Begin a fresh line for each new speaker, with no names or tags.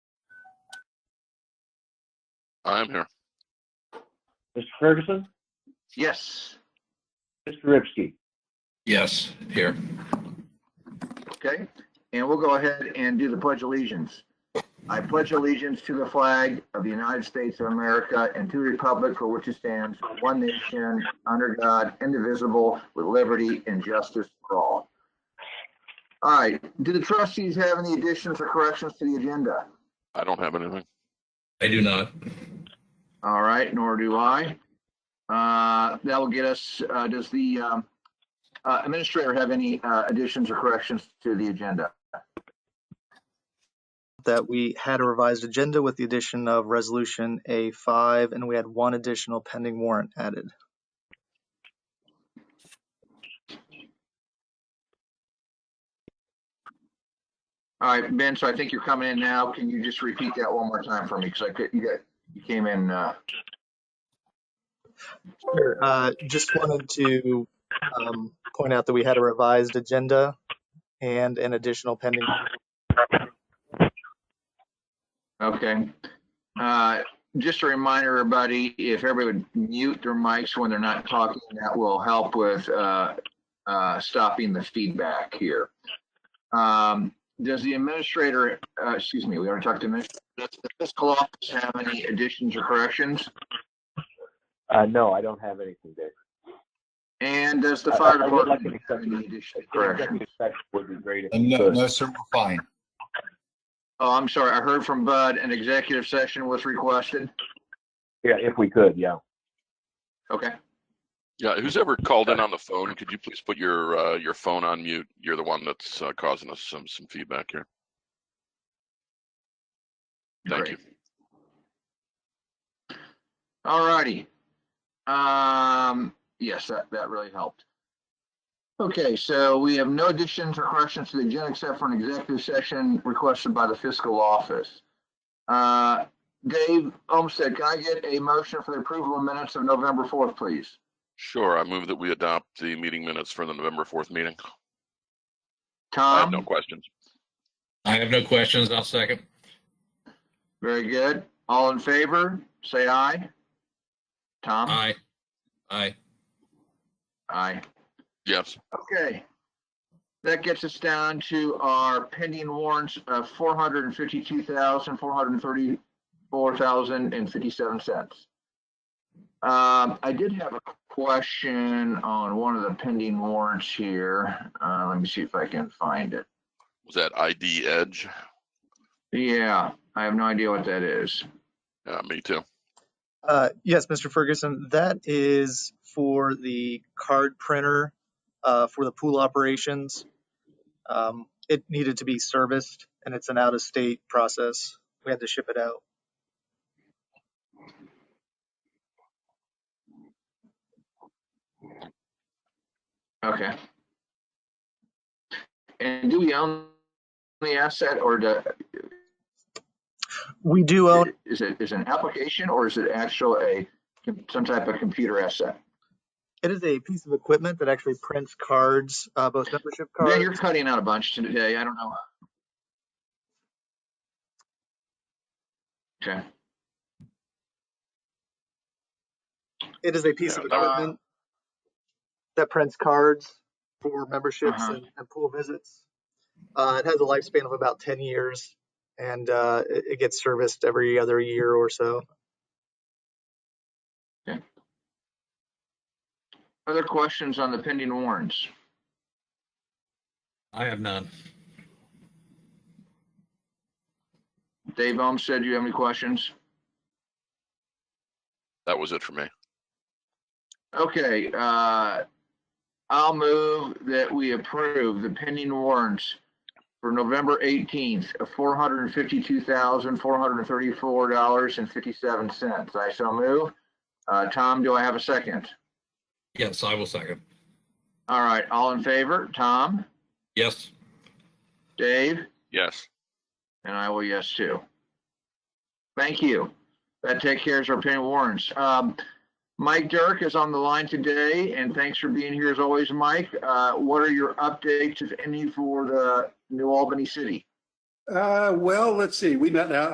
I'm here.
Mr. Ferguson,
Yes.
Mr. Ripsky.
Yes, here.
Okay, and we'll go ahead and do the pledge allegiance. I pledge allegiance to the flag of the United States of America and to the republic for which it stands, one nation, under God, indivisible, with liberty and justice for all. All right, do the trustees have any additions or corrections to the agenda?
I don't have anything.
I do not.
All right, nor do I. Uh, That will get us, uh, does the um, uh, administrator have any uh, additions or corrections to the agenda?
that we had a revised agenda with the addition of resolution A5, and we had one additional pending warrant added.
All right, Ben, so I think you're coming in now. Can you just repeat that one more time for me? Because I could, you got, you came in, uh,
Sure. Uh, just wanted to um, point out that we had a revised agenda and an additional pending.
okay. Uh, Just a reminder, everybody, if everybody would mute their mics when they're not talking, that will help with uh, uh, stopping the feedback here. Um, Does the administrator, uh, excuse me, we already talked to, admin- does the fiscal office have any additions or corrections?
Uh, no, I don't have anything, Dave.
And does the
I- I-
fire
I would like
department
to
have
accept
any
the-
additions or corrections?
Executive session would be great. if we
No,
could.
no, sir, we're fine.
Oh, I'm sorry. I heard from Bud, an executive session was requested.
Yeah, if we could, yeah.
Okay.
Yeah, who's ever called in on the phone, could you please put your, uh, your phone on mute? You're the one that's uh, causing us some, some feedback here. Thank you.
great. All righty. Um, yes, that, that really helped. Okay, so we have no additions or corrections to the agenda except for an executive session requested by the fiscal office. Uh, Dave Olmsted, can I get a motion for the approval of minutes of November 4th, please?
Sure, I move that we adopt the meeting minutes for the November 4th meeting. I have no
Tom,
questions.
I have no questions. I'll second.
very good. All in favor, say aye. Tom?
Aye. Aye.
Aye.
Yes,
Okay. That gets us down to our pending warrants of four hundred and fifty-two thousand, four hundred and thirty-four thousand and fifty-seven cents. Um, I did have a question on one of the pending warrants here. Uh, let me see if I can find it.
was that ID Edge?
Yeah, I have no idea what that is.
Yeah, me too.
Uh, yes, Mr. Ferguson, that is for the card printer uh, for the pool operations. Um, it needed to be serviced, and it's an out of state process. We had to ship it out.
Okay. And do we own the asset or do,
We do own
is it, is it an application or is it actual a, some type of computer asset?
It is a piece of equipment that actually prints cards, uh, both membership cards.
Yeah, you're cutting out a bunch today. I don't know. Okay,
It is a piece of
Yeah, that was-
equipment that prints cards for memberships
Uh-huh.
and, and pool visits. Uh, it has a lifespan of about 10 years and uh, it, it gets serviced every other year or so.
other questions on the pending warrants?
I have none.
Dave Ohm said, you have any questions?
That was it for me.
Okay, uh, I'll move that we approve the pending warrants for November eighteenth of four hundred and fifty-two thousand, four hundred and thirty-four dollars and fifty-seven cents. I shall move. Uh, Tom, do I have a second?
Yes, I will second.
All right, all in favor? Tom,
Yes.
Dave?
Yes,
And I will yes too. Thank you. That take care of our pending warrants. Um, Mike Dirk is on the line today and thanks for being here as always, Mike. Uh, what are your updates, if any, for the New Albany City?
Uh, well, let's see. We met now.